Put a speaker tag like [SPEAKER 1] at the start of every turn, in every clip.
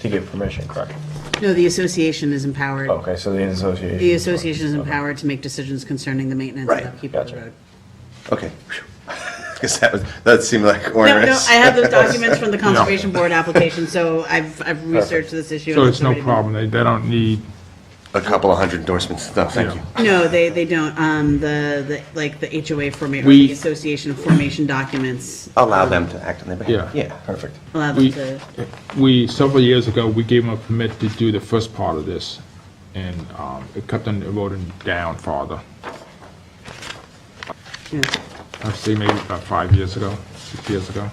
[SPEAKER 1] to give permission, correct?
[SPEAKER 2] No, the association is empowered.
[SPEAKER 1] Okay, so the association.
[SPEAKER 2] The association is empowered to make decisions concerning the maintenance
[SPEAKER 3] Right.
[SPEAKER 2] and upkeep of the
[SPEAKER 1] Gotcha.
[SPEAKER 2] road.
[SPEAKER 3] Okay. Because that was, that seemed like
[SPEAKER 2] No, no,
[SPEAKER 3] onerous.
[SPEAKER 2] I have those documents from the Conservation Board application, so I've, I've researched this issue.
[SPEAKER 4] So
[SPEAKER 2] and
[SPEAKER 4] it's no
[SPEAKER 2] already been-
[SPEAKER 4] problem, they, they don't need,
[SPEAKER 3] A couple of hundred endorsements, no, thank you.
[SPEAKER 2] No, they, they don't. Um, the, the, like, the HOA formation,
[SPEAKER 4] We-
[SPEAKER 2] the association formation documents
[SPEAKER 3] Allow them to act on their behalf.
[SPEAKER 4] Yeah.
[SPEAKER 3] Yeah.
[SPEAKER 1] Perfect.
[SPEAKER 2] allow them
[SPEAKER 4] we,
[SPEAKER 2] to,
[SPEAKER 4] we, several years ago, we gave them a permit to do the first part of this, and, um, it kept on eroding down farther.
[SPEAKER 2] you know,
[SPEAKER 4] I'd say maybe about five years ago, six years ago.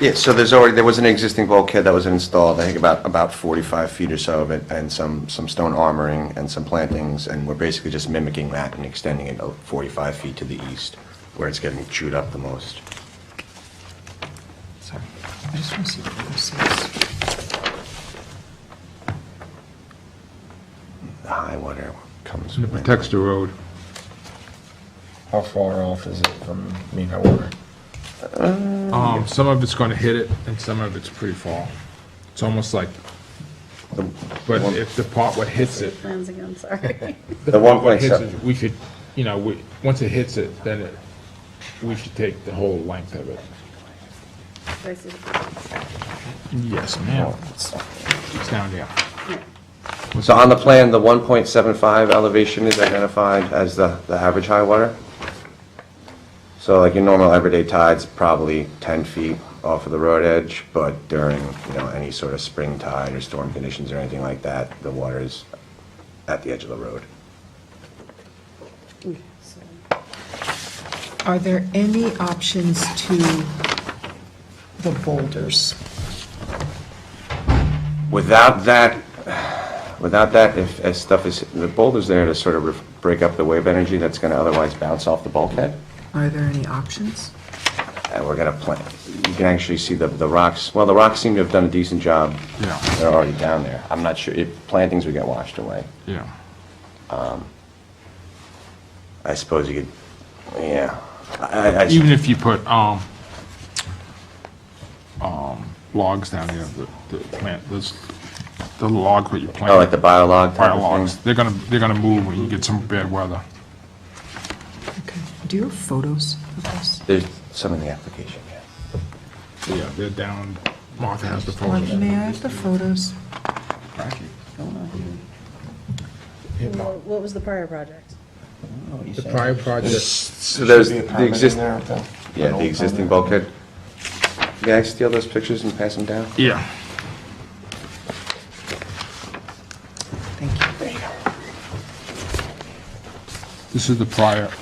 [SPEAKER 3] Yeah, so there's already, there was an existing bulkhead that was installed, I think about, about 45 feet or so of it, and some, some stone armoring and some plantings, and we're basically just mimicking that and extending it out 45 feet to the east, where it's getting chewed up the most.
[SPEAKER 5] Sorry, I just want to see what this is.
[SPEAKER 3] The high water comes.
[SPEAKER 4] And it protects the road.
[SPEAKER 1] How far off is it from mean high water?
[SPEAKER 4] Um, some of it's gonna hit it, and some of it's pretty far. It's almost like, but if the part what hits it,
[SPEAKER 2] plans again, sorry.
[SPEAKER 3] The one
[SPEAKER 4] what
[SPEAKER 3] place,
[SPEAKER 4] hits it, we could, you know, we, once it hits it, then it, we should take the whole length of it. Yes, ma'am. It's down there.
[SPEAKER 3] so on the plan, the 1.75 elevation is identified as the, the average high water? So like your normal everyday tide's probably 10 feet off of the road edge, but during, you know, any sort of spring tide or storm conditions or anything like that, the water is at the edge of the road.
[SPEAKER 5] Are there any options to the boulders?
[SPEAKER 3] Without that, without that, if, as stuff is, the boulder's there to sort of re- break up the wave energy that's going to otherwise bounce off the bulkhead.
[SPEAKER 5] Are there any options?
[SPEAKER 3] And we're gonna plant, you can actually see the, the rocks, well, the rocks seem to have done a decent job.
[SPEAKER 4] Yeah.
[SPEAKER 3] They're already down there. I'm not sure, if plantings would get washed away.
[SPEAKER 4] Yeah.
[SPEAKER 3] I suppose you could, yeah. I, I- I,
[SPEAKER 4] Even if you put, um, um, logs down there, the, the plant, those, the logs what you plant.
[SPEAKER 3] oh, like the biolog type
[SPEAKER 4] Fire
[SPEAKER 3] of
[SPEAKER 4] logs,
[SPEAKER 3] thing?
[SPEAKER 4] they're gonna, they're gonna move when you get some bad weather.
[SPEAKER 5] Okay. Do you have photos of this?
[SPEAKER 3] There's some in the application, yeah.
[SPEAKER 4] Yeah, they're down, Martha has the
[SPEAKER 5] Like,
[SPEAKER 4] photos.
[SPEAKER 5] May I have the photos?
[SPEAKER 6] What was the prior project?
[SPEAKER 4] The prior project,
[SPEAKER 3] So there's the
[SPEAKER 1] existing.
[SPEAKER 3] existing, yeah, the existing bulkhead. May I steal those pictures and pass them down?
[SPEAKER 4] yeah.
[SPEAKER 5] Thank you.
[SPEAKER 4] This is the prior
[SPEAKER 1] The,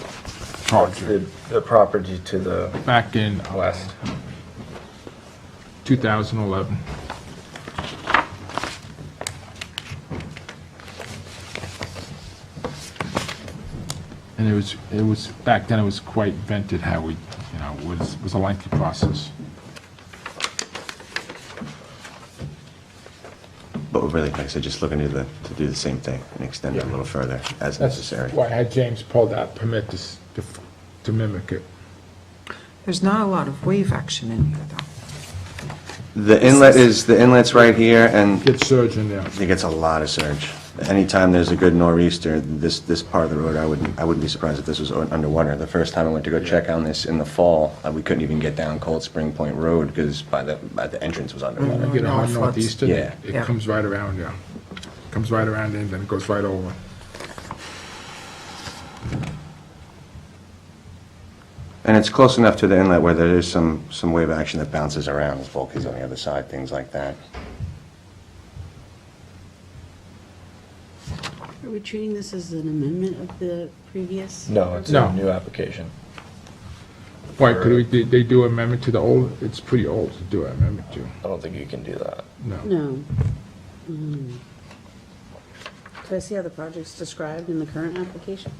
[SPEAKER 4] project,
[SPEAKER 1] the property to the
[SPEAKER 4] back in
[SPEAKER 1] west.
[SPEAKER 4] 2011. And it was, it was, back then it was quite vented how we, you know, was, was a lengthy process.
[SPEAKER 3] But we're really, like I said, just looking to the, to do the same thing and extend it a little further as necessary.
[SPEAKER 4] Why I had James pull that permit to, s- to f- to mimic it.
[SPEAKER 5] There's not a lot of wave action in here, though.
[SPEAKER 3] The inlet is, the inlet's right here and
[SPEAKER 4] Get surge in there.
[SPEAKER 3] I think it's a lot of surge. Anytime there's a good nor'easter, this, this part of the road, I wouldn't, I wouldn't be surprised if this was un- underwater. The first time I went to go check on this in the fall, uh, we couldn't even get down Cold Spring Point Road because by the, by the entrance was underwater.
[SPEAKER 4] Get
[SPEAKER 5] no, it
[SPEAKER 4] on
[SPEAKER 5] floods.
[SPEAKER 4] northeastern,
[SPEAKER 3] Yeah.
[SPEAKER 4] it
[SPEAKER 5] Yeah.
[SPEAKER 4] comes right around there. Comes right around and then it goes right over.
[SPEAKER 3] And it's close enough to the inlet where there is some, some wave action that bounces around, there's bulkheads on the other side, things like that.
[SPEAKER 2] Are we treating this as an amendment of the previous?
[SPEAKER 1] No, it's
[SPEAKER 4] No.
[SPEAKER 1] a new application.
[SPEAKER 4] Why, could we, did they do amendment to the old, it's pretty old to do amendment to,
[SPEAKER 1] I don't think you can do that.
[SPEAKER 4] no.
[SPEAKER 2] No. Um,
[SPEAKER 6] Do I see how the project's described?
[SPEAKER 2] In the current application?